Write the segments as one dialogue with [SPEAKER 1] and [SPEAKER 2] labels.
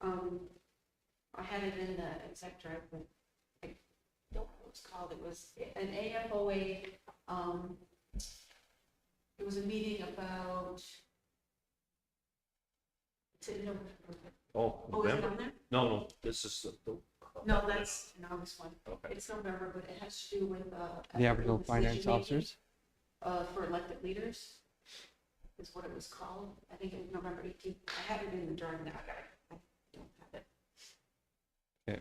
[SPEAKER 1] um, I had it in the exec drive, but I don't know what it's called, it was an AFOA, um, it was a meeting about, to, no,
[SPEAKER 2] Oh,
[SPEAKER 1] oh, is it
[SPEAKER 2] November?
[SPEAKER 1] on there?
[SPEAKER 2] No, no, this is the- the.
[SPEAKER 1] No, that's an August one,
[SPEAKER 2] Okay.
[SPEAKER 1] it's November, but it has to do with, uh.
[SPEAKER 3] The Aboriginal
[SPEAKER 1] with
[SPEAKER 3] Finance
[SPEAKER 1] decision-making,
[SPEAKER 3] Officers.
[SPEAKER 1] Uh, for elected leaders, is what it was called, I think it was November eighteenth, I had it in the drive now, I don't have it.
[SPEAKER 3] Okay.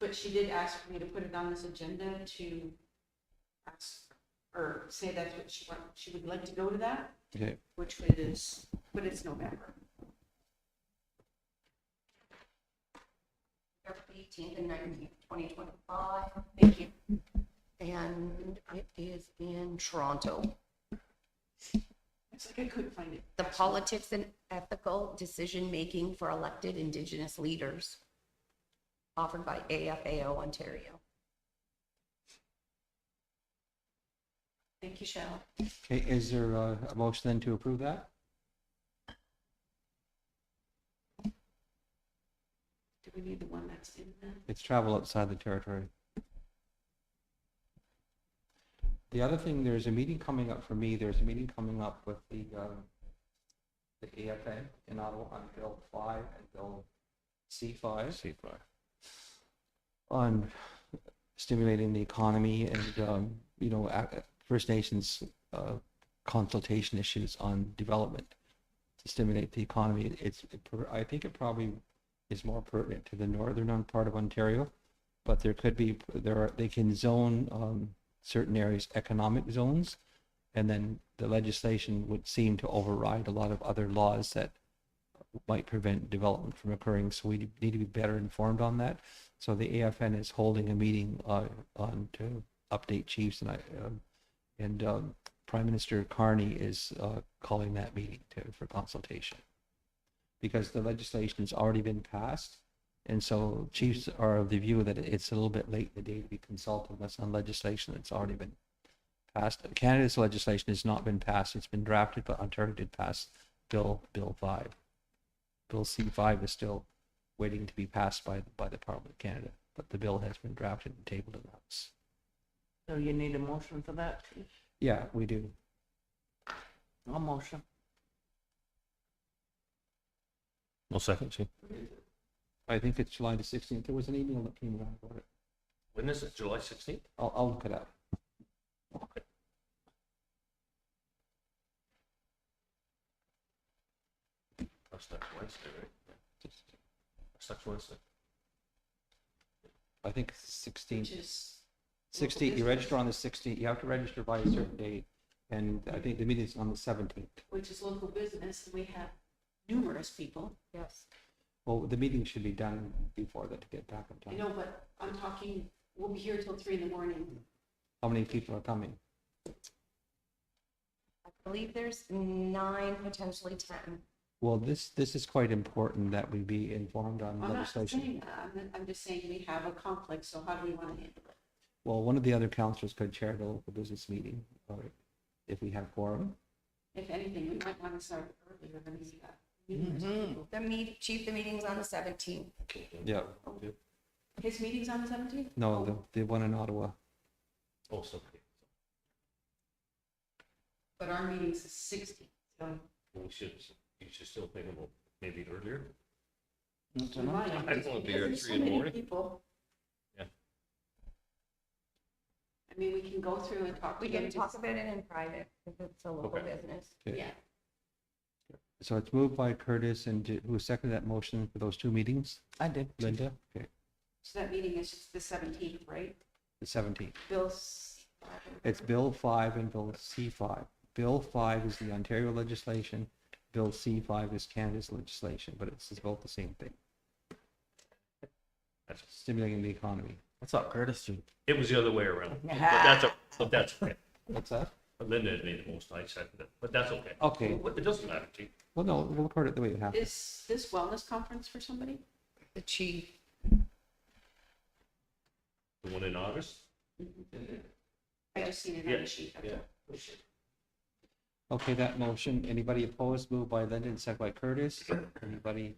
[SPEAKER 1] But she did ask me to put it on this agenda to ask, or say that's what she want, she would like to go to that,
[SPEAKER 3] Okay,
[SPEAKER 1] which it is, but it's November.
[SPEAKER 4] November eighteenth and nineteenth, twenty twenty-five. Thank you. And it is in Toronto.
[SPEAKER 1] It's like I couldn't find it.
[SPEAKER 4] The politics and ethical decision-making for elected Indigenous leaders offered by AFAO Ontario.
[SPEAKER 1] Thank you, Shell.
[SPEAKER 3] okay, is there a, a motion then to approve that?
[SPEAKER 1] Do we need the one that's in there?
[SPEAKER 3] It's travel outside the territory. The other thing, there's a meeting coming up for me, there's a meeting coming up with the, um, the AFA in Ottawa on Bill five and Bill C five.
[SPEAKER 2] See, right.
[SPEAKER 3] on stimulating the economy and, um, you know, a- First Nations, uh, consultation issues on development to stimulate the economy. It's, it per- I think it probably is more pertinent to the northern on part of Ontario, but there could be, there are, they can zone, um, certain areas economic zones. And then the legislation would seem to override a lot of other laws that might prevent development from occurring. So we need to be better informed on that. So the AFN is holding a meeting uh, on to update chiefs and I, um, and um, Prime Minister Carney is uh, calling that meeting to, for consultation. Because the legislation's already been passed, and so chiefs are of the view that it's a little bit late in the day to be consulting us on legislation that's already been passed. Canada's legislation has not been passed, it's been drafted, but Ontario did pass Bill, Bill five. Bill C five is still waiting to be passed by, by the Parliament of Canada, but the bill has been drafted and tabled in the House.
[SPEAKER 5] So you need a motion for that?
[SPEAKER 3] Yeah, we do.
[SPEAKER 5] A motion.
[SPEAKER 2] No second, see.
[SPEAKER 3] I think it's July the sixteenth. There was an email that came around about it.
[SPEAKER 2] When is it, July sixteenth?
[SPEAKER 3] I'll, I'll look it up.
[SPEAKER 2] That's next Wednesday, right? That's next Wednesday.
[SPEAKER 3] I think it's sixteenth.
[SPEAKER 1] Which is.
[SPEAKER 3] Sixteenth, you register on the sixteenth. You have to register by a certain date. And I think the meeting's on the seventeenth.
[SPEAKER 1] Which is local business, we have numerous people,
[SPEAKER 4] Yes.
[SPEAKER 3] Well, the meeting should be done before that to get back
[SPEAKER 1] I
[SPEAKER 3] in time.
[SPEAKER 1] know, but I'm talking, we'll be here till three in the morning.
[SPEAKER 3] How many people are coming?
[SPEAKER 4] I believe there's nine, potentially ten.
[SPEAKER 3] Well, this, this is quite important that we be informed on
[SPEAKER 1] I'm not
[SPEAKER 3] legislation.
[SPEAKER 1] saying that, I'm, I'm just saying we have a conflict, so how do we want to handle it?
[SPEAKER 3] Well, one of the other councillors could chair the local business meeting, or if we have quorum.
[SPEAKER 1] If anything, we might want to start earlier than we got. numerous people.
[SPEAKER 4] The meet, chief, the meeting's on the seventeenth.
[SPEAKER 3] Yeah.
[SPEAKER 1] His meeting's on the seventeenth?
[SPEAKER 3] No, the, the one in Ottawa.
[SPEAKER 2] Oh, something.
[SPEAKER 1] But our meeting's the sixteenth, so
[SPEAKER 2] We should, you should still think about maybe earlier.
[SPEAKER 1] we might.
[SPEAKER 2] I don't wanna be here at
[SPEAKER 1] because there's so
[SPEAKER 2] three in the
[SPEAKER 1] many
[SPEAKER 2] morning.
[SPEAKER 1] People.
[SPEAKER 2] Yeah.
[SPEAKER 1] I mean, we can go through and talk.
[SPEAKER 4] We
[SPEAKER 1] to them
[SPEAKER 4] can
[SPEAKER 1] to-
[SPEAKER 4] talk about it in private if it's a local
[SPEAKER 2] Okay.
[SPEAKER 4] business.
[SPEAKER 3] Okay.
[SPEAKER 1] Yeah,
[SPEAKER 3] So it's moved by Curtis and did- who seconded that motion for those two meetings?
[SPEAKER 5] I did.
[SPEAKER 3] Linda? Okay,
[SPEAKER 1] so that meeting is the seventeenth, right?
[SPEAKER 3] the seventeenth.
[SPEAKER 1] Bill's.
[SPEAKER 3] It's Bill five and Bill C five. Bill five is the Ontario legislation. Bill C five is Canada's legislation, but it's both the same thing. Stimulating the economy.
[SPEAKER 5] What's up, Curtis?
[SPEAKER 2] It was the other way around. But that's, o- but that's okay.
[SPEAKER 3] What's that?
[SPEAKER 2] Linda had made the most, I seconded it, but that's okay.
[SPEAKER 3] Okay,
[SPEAKER 2] It doesn't matter, chief.
[SPEAKER 3] well, no, we'll record it the way it happened.
[SPEAKER 1] Is this wellness conference for somebody?
[SPEAKER 4] The chief,
[SPEAKER 2] The one in August?
[SPEAKER 1] I just seen it on
[SPEAKER 2] Yeah,
[SPEAKER 1] the sheet. okay.
[SPEAKER 3] Okay, that motion, anybody opposed, moved by Linda and seconded by Curtis. Anybody